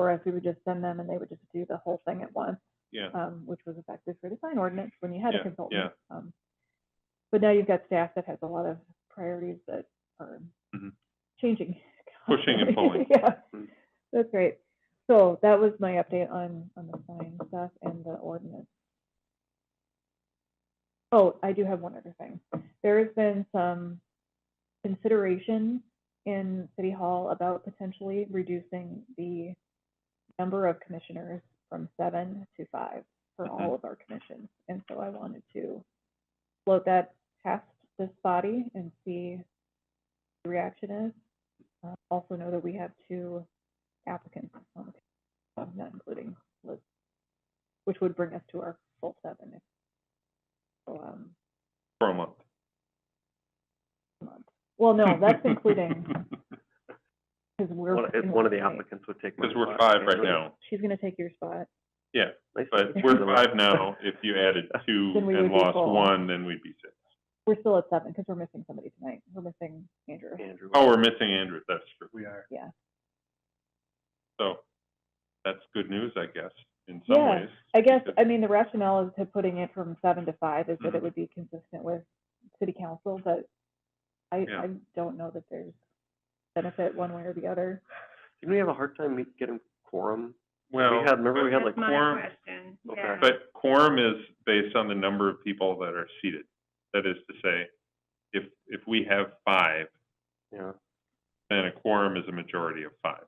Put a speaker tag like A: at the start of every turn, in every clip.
A: or if we would just send them and they would just do the whole thing at once,
B: yeah,
A: um, which was effective for the sign ordinance when you had
B: Yeah,
A: a consultant. Um, but now you've got staff that has a lot of priorities that are
B: Mhm.
A: changing.
B: Pushing
A: constantly.
B: and pulling.
A: Yeah,
B: Mm.
A: that's great. So that was my update on, on the sign stuff and the ordinance. Oh, I do have one other thing. There has been some consideration in City Hall about potentially reducing the number of commissioners from seven to five for all of our commissions. And so I wanted to float that past this body and see what the reaction is. Uh, Also know that we have two applicants on the, committee, not including Liz, which would bring us to our full seven. if- So, um,
B: for a month.
A: month. Well, no, that's including, because we're.
C: One- If
A: in
C: one of the
A: state.
C: applicants would take my
B: Because we're
C: spot,
B: five
C: yeah,
B: right
C: nice-
B: now,
A: She's gonna take your spot.
C: nice
B: but
C: to-
B: we're five now. If you added two
A: Then we
B: and
A: would be
B: lost
A: full.
B: one, then we'd be six.
A: We're still at seven because we're missing somebody tonight. We're missing Andrew.
C: Andrew.
B: Oh, we're missing Andrew, that's true.
C: We are.
A: Yeah.
B: So, that's good news, I guess, in some
A: Yeah,
B: ways.
A: I guess,
B: because-
A: I mean, the rationale is to putting it from seven to five is that it
B: Mhm.
A: would be consistent with city council, but I,
B: Yeah.
A: I don't know that there's benefit one way or the other.
C: Didn't we have a hard time meet- getting quorum?
B: Well.
C: had- remember we had,
B: but-
C: like,
D: That's my
B: quorum-
D: question,
C: Okay.
D: yeah.
B: But quorum is based on the number of people that are seated. That is to say, if, if we have five,
C: Yeah,
B: then a quorum is a majority of five,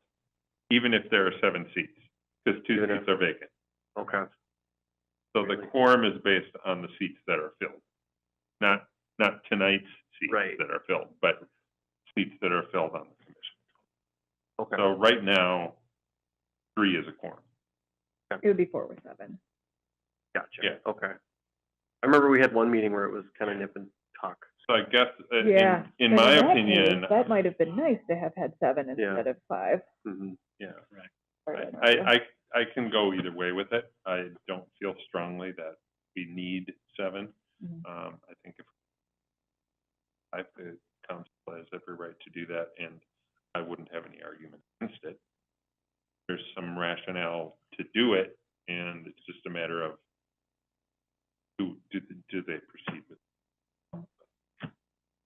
B: even if there are seven seats, because two
C: Good
B: seats are vacant.
C: okay.
B: So the
C: Really?
B: quorum is based on the seats that are filled, not, not tonight's seats
C: Right.
B: that are filled, but seats that are filled on the commission.
C: Okay.
B: So right now, three is a quorum.
A: It would be four with seven.
B: Yeah.
C: Gotcha, okay. I remember we had one meeting where it was kind of nip and tuck.
B: So I guess, uh, in,
A: Yeah.
B: in
A: But
B: my
A: that case,
B: opinion,
A: That might have been nice to have had seven
C: Yeah.
A: instead of five.
C: Mhm.
B: yeah.
A: or
B: I,
A: an
B: I,
A: order.
B: I- I can go either way with it. I don't feel strongly that we need seven.
A: Mhm.
B: Um, I think if I, the council has every right to do that, and I wouldn't have any argument against it. There's some rationale to do it, and it's just a matter of who, do, do they proceed with?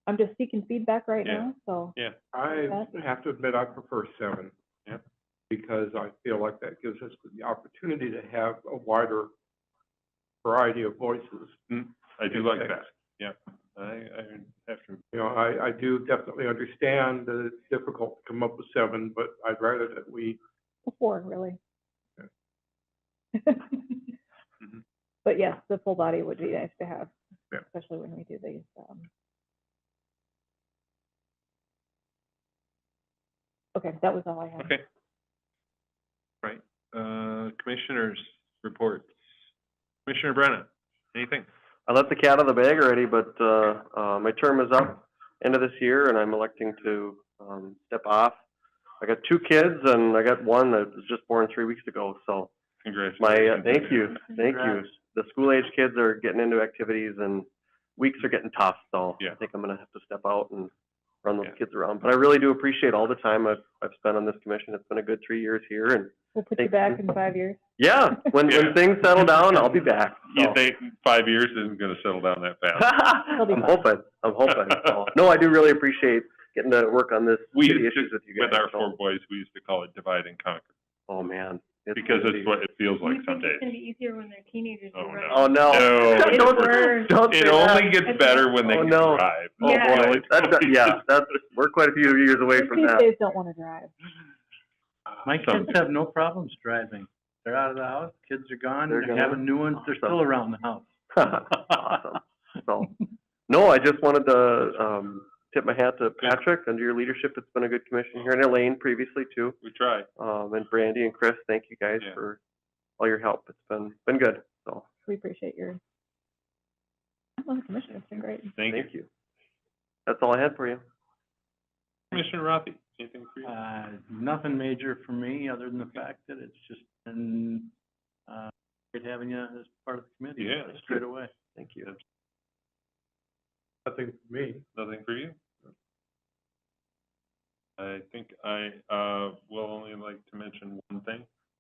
A: I'm just seeking feedback right
B: Yeah.
A: now, so
E: I
A: That's-
E: have to admit, I prefer seven.
B: Yep.
E: Because I feel like that gives us the opportunity to have a wider variety of voices.
B: I do like
E: Okay.
B: that, yeah. I, I have to,
E: You know, I, I do definitely understand that it's difficult to come up with seven, but I'd rather that we,
A: four, really.
E: Okay.
A: But yes, the full body would be nice to have,
E: Yeah.
A: especially when we do these, um. Okay, that was all I had.
B: okay. Right, uh, commissioners reports. Commissioner Brennan, anything?
C: I let the cat out of the bag already, but, uh, uh, my term is up end of this year and I'm electing to, um, step off. I got two kids and I got one that was just born three weeks ago, so
B: Congratulations.
C: my, uh, thank you, thank you.
E: Congrats.
C: The school age kids are getting into activities and weeks are getting tough, so
B: Yeah.
C: I think I'm gonna have to step out and run those
B: Yeah.
C: kids around. But I really do appreciate all the time I've, I've spent on this commission. It's been a good three years here and,
A: We'll put you
C: Thank
A: back
C: you.
A: in five years.
C: yeah, when,
B: Yeah.
C: when things settle down, I'll be back.
B: You
C: so.
B: think five years isn't gonna settle down that fast?
A: be
C: I'm
A: fun.
C: hoping, I'm hoping. so. No, I do really appreciate getting to work on this,
B: We
C: city
B: used to-
C: issues with you guys.
B: With our
C: so-
B: four boys, we used to call it divide and conquer,
C: Oh, man.
B: because
C: gonna
B: it's
C: be-
B: what it feels like
D: You
A: Mm-hmm.
D: think
B: some days.
D: It's gonna be easier when they're teenagers,
B: Oh,
D: you're right?
B: no.
C: Oh, no.
B: No,
D: It's
C: Don't-
D: worse.
C: Don't say
B: It
C: that.
B: only gets better when they
C: Oh,
B: can
C: no.
B: drive.
C: Oh,
D: Yeah.
C: boy, that's, not- yeah, that's, we're quite a few years away from
A: These
C: that.
A: days don't wanna drive.
F: My kids
B: Some-
F: have no problems driving. They're out of the house, kids are gone,
C: They're
F: they're
C: gone.
F: having new ones, they're still
C: Awesome.
F: around the house.
C: Awesome. So, no, I just wanted to, um, tip my hat to
B: Good.
C: Patrick. Under your leadership, it's been a good commission here in Elaine previously too.
B: We try,
C: Um, and Brandy and Chris, thank you guys
B: Yeah.
C: for all your help. It's been, been good, so,
A: We appreciate your. I'm on the commission, it's been great.
B: thank you.
C: thank you. That's all I had for you.
B: Commissioner Rothie, anything for you?
F: Uh, nothing major for me, other than the fact that it's just been, uh, great having you as part of the committee.
B: Yeah, that's
F: Straight away.
C: Thank you.
E: nothing for me.
B: Nothing for you? I think I, uh, will only like to mention one thing.